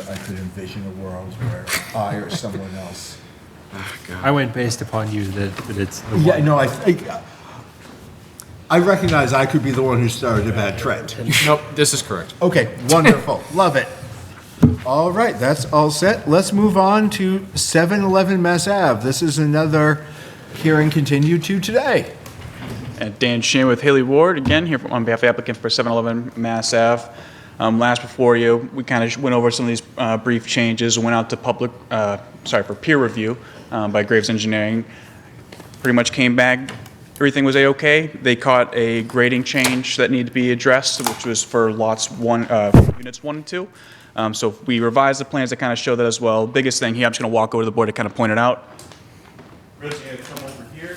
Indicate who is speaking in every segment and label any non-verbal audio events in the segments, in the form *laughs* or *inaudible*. Speaker 1: could envision a world where I or someone else.
Speaker 2: I went based upon you that, that it's
Speaker 1: *laughs*
Speaker 2: the
Speaker 1: Yeah,
Speaker 2: one.
Speaker 1: no, I, I, I recognize I could be the one who started a bad trend.
Speaker 3: Nope, this is correct.
Speaker 1: Okay, wonderful, *laughs* love it. All right, that's all set. Let's move on to 711 Mass Ave. This is another hearing continued to today.
Speaker 4: And Dan Shin with Haley Ward, again, here on behalf of the applicant for 711 Mass Ave. Um, Last before you, we kind of went over some of these uh, brief changes, went out to public, uh, sorry, for peer review um, by Graves Engineering. Pretty much came back, everything was A-OK. They caught a grading change that needed to be addressed, which was for lots one, uh, units one and two. Um, So we revised the plans to kind of show that as well. Biggest thing here, I'm just going to walk over to the board to kind of point it out. Ribs are gonna come over here,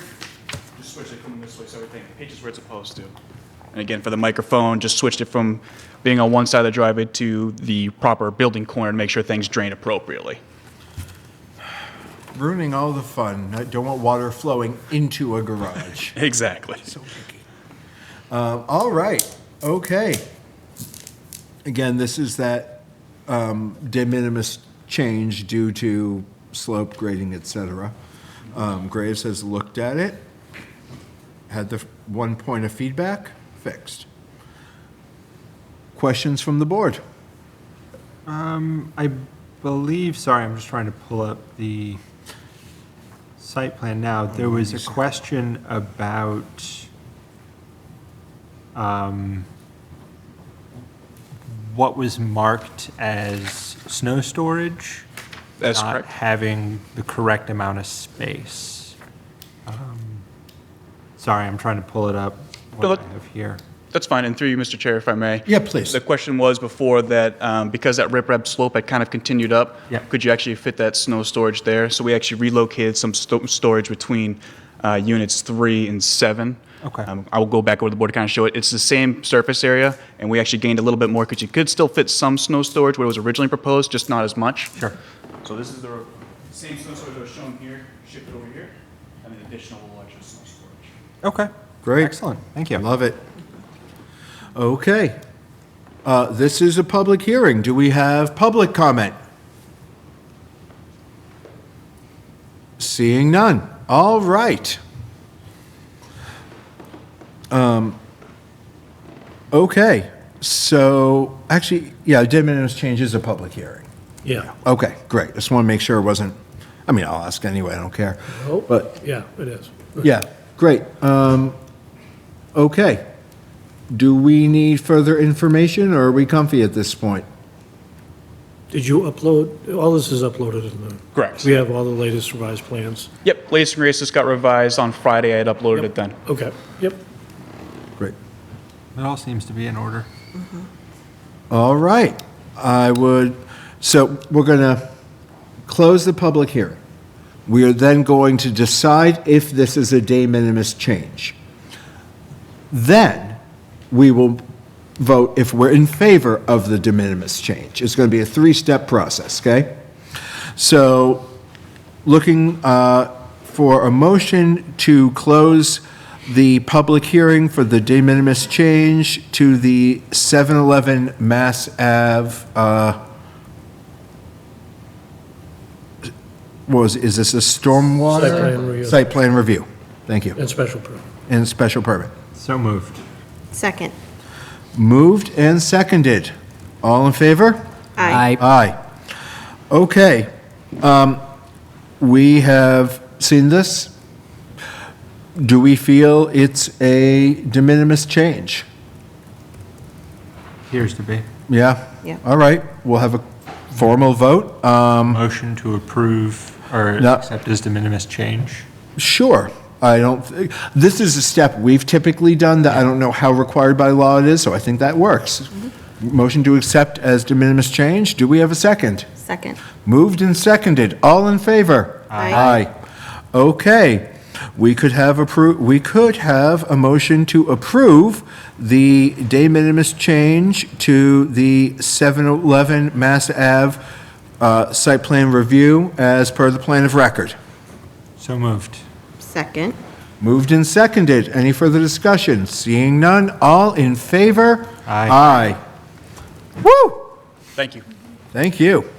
Speaker 4: just switch it coming this way, so everything pitches where it's supposed to. And again, for the microphone, just switched it from being on one side of the driveway to the proper building corner to make sure things drain appropriately.
Speaker 1: Ruining all the fun. I don't want water flowing into a garage.
Speaker 4: Exactly.
Speaker 1: Um, all right, okay. Again, this is that um, de minimis change due to slope grading, et cetera. Um, Graves has looked at it, had the f- one point of feedback fixed. Questions from the board?
Speaker 2: I believe, sorry, I'm just trying to pull up the site plan now. There was a question about um, what was marked as snow storage?
Speaker 4: That's
Speaker 2: not
Speaker 4: correct.
Speaker 2: having the correct amount of space. Um, Sorry, I'm trying to pull it up,
Speaker 4: No,
Speaker 2: what I
Speaker 4: that-
Speaker 2: have here.
Speaker 4: That's fine, and through you, Mr. Chair, if I may.
Speaker 1: Yeah, please.
Speaker 4: The question was before that, um, because that riprap slope had kind of continued up,
Speaker 2: Yeah.
Speaker 4: could you actually fit that snow storage there? So we actually relocated some sto- storage between uh, units three and seven.
Speaker 2: Okay.
Speaker 4: Um, I will go back over the board to kind of show it. It's the same surface area, and we actually gained a little bit more because you could still fit some snow storage where it was originally proposed, just not as much.
Speaker 2: Sure.
Speaker 4: So this is the same snow storage that was shown here, shifted over here, and an additional extra snow storage.
Speaker 2: Okay.
Speaker 1: Great.
Speaker 2: Excellent, thank you.
Speaker 1: Love it. Okay. Uh, This is a public hearing. Do we have public comment? Seeing none. All right. Um, Okay, so, actually, yeah, de minimis change is a public hearing.
Speaker 5: Yeah,
Speaker 1: Okay, great. Just want to make sure it wasn't, I mean, I'll ask anyway, I don't care. But
Speaker 5: Oh, yeah, it is.
Speaker 1: yeah, great. Um, Okay. Do we need further information, or are we comfy at this point?
Speaker 5: Did you upload, all this is uploaded in the?
Speaker 4: Correct.
Speaker 5: We have all the latest revised plans.
Speaker 4: Yep, latest and greatest just got revised on Friday. I had uploaded it then.
Speaker 5: Okay, yep.
Speaker 1: Great.
Speaker 2: It all seems to be in order.
Speaker 1: All right. I would, so we're going to close the public hearing. We are then going to decide if this is a de minimis change. Then, we will vote if we're in favor of the de minimis change. It's going to be a three-step process, okay? So, looking uh, for a motion to close the public hearing for the de minimis change to the 711 Mass Ave, uh, what was, is this a stormwater?
Speaker 5: Site plan review.
Speaker 1: Site plan review. Thank you.
Speaker 5: And special permit.
Speaker 1: And special permit.
Speaker 2: So moved.
Speaker 6: Second.
Speaker 1: Moved and seconded. All in favor?
Speaker 6: Aye.
Speaker 1: Aye. Okay. um, We have seen this. Do we feel it's a de minimis change?
Speaker 2: Appears to be.
Speaker 1: Yeah?
Speaker 6: Yeah.
Speaker 1: All right, we'll have a formal vote. Um,
Speaker 2: Motion to approve or
Speaker 1: No.
Speaker 2: accept as de minimis change?
Speaker 1: Sure. I don't, thi- this is a step we've typically done that I don't know how required by law it is, so I think that works. Motion to accept as de minimis change. Do we have a second?
Speaker 6: Second.
Speaker 1: Moved and seconded. All in favor?
Speaker 6: Aye.
Speaker 1: Okay. We could have appro, we could have a motion to approve the de minimis change to the 711 Mass Ave uh, site plan review as per the plan of record.
Speaker 2: So moved.
Speaker 6: Second.
Speaker 1: Moved and seconded. Any further discussion? Seeing none, all in favor?
Speaker 2: Aye.
Speaker 1: Aye. Woo!
Speaker 4: Thank you.
Speaker 1: Thank you.